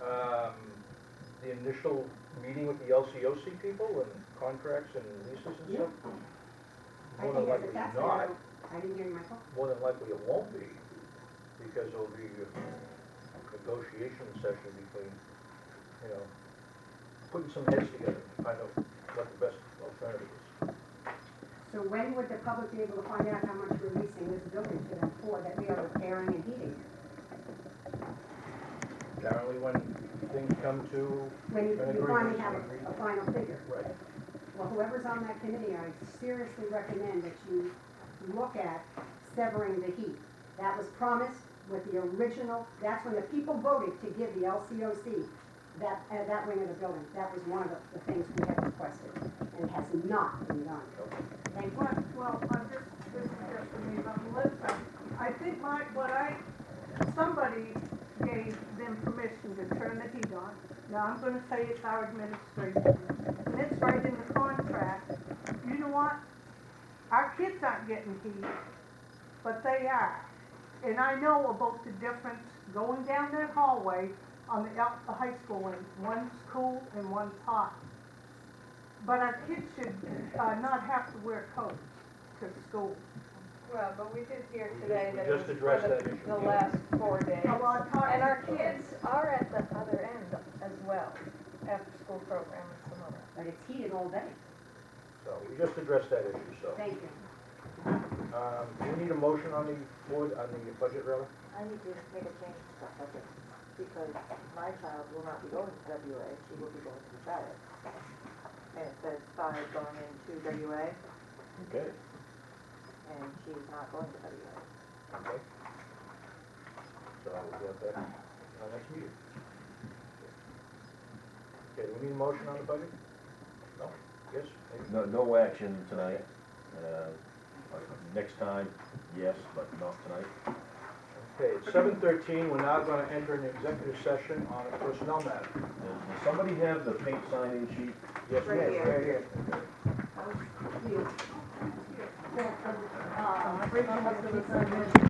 um, the initial meeting with the LCOC people and contracts and leases and Yeah. stuff? I More than think that's, likely that's, not, where I didn't hear my call. more than likely it won't be, because it'll be a negotiation session between, you know, putting some heads together to find out what the best alternative is. So when would the public be able to find out how much we're leasing this building to them for, that we are repairing and heating? Apparently when things come to, When you, An you finally agreement. have a, a final figure. right, Well, whoever's on that committee, I seriously recommend that you look at severing the heat. That was promised with the original, that's when the people voted to give the LCOC that, uh, that wing of the building. That was one of the, the things we had requested, and it has not been done. Thank you. What, well, I'm just, this is just for me, but Melissa, I think my, what I, somebody gave them permission to turn the heat on. Now, I'm gonna say it's our administration, and it's right in the contract. You know what? Our kids aren't getting heat, but they are. And I know about the difference going down that hallway on the, out the high school wing. One's cool and one's hot. But our kids should uh, not have to wear coats to school. Well, but we did hear We just- today we that it just was for addressed the- that issue, the yeah. last four days. Well, I taught- And our kids are at the other end as well, after-school program and some other. But it's heated all day. so we just addressed that issue, so. Thank you. Um, do you need a motion on the board, on the budget rather? I need you to make a change to the budget, because my child will not be going to WA, she will be going to Charlotte. And it says five going into WA, Okay. and she's not going to WA. Okay. So I will get that in our next meeting. Okay, do we need a motion on the budget? No? Yes? Maybe? No, no action tonight. Uh, like, Next time, yes, but not tonight. Okay, it's seven thirteen, we're now gonna enter an executive session on a personnel matter. Does does somebody have the paint signing sheet? Yes, ma'am, Right right here. here. You. Uh, Rachel has to resign.